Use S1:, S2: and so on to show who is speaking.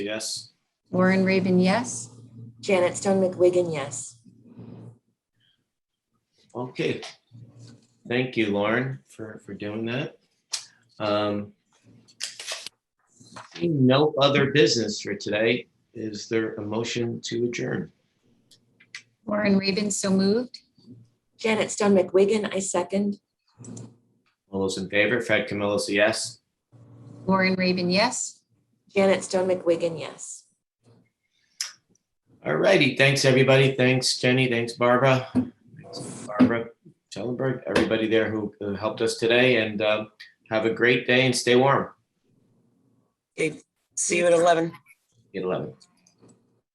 S1: Yes.
S2: Lauren Raven, yes.
S3: Janet Stone McWiggin, yes.
S1: Okay. Thank you, Lauren, for, for doing that. Um, seeing No other business for today. Is there a motion to adjourn?
S2: Lauren Raven, so moved.
S3: Janet Stone McWiggin, I second.
S1: All those in favor, Fred Camillo's a yes.
S2: Lauren Raven, yes.
S3: Janet Stone McWiggin, yes.
S1: All righty, thanks, everybody. Thanks, Jenny. Thanks, Barbara. Thanks, Barbara Schellenberg, everybody there who who helped us today, and uh, have a great day and stay warm.
S4: Okay, see you at 11.
S1: Get 11.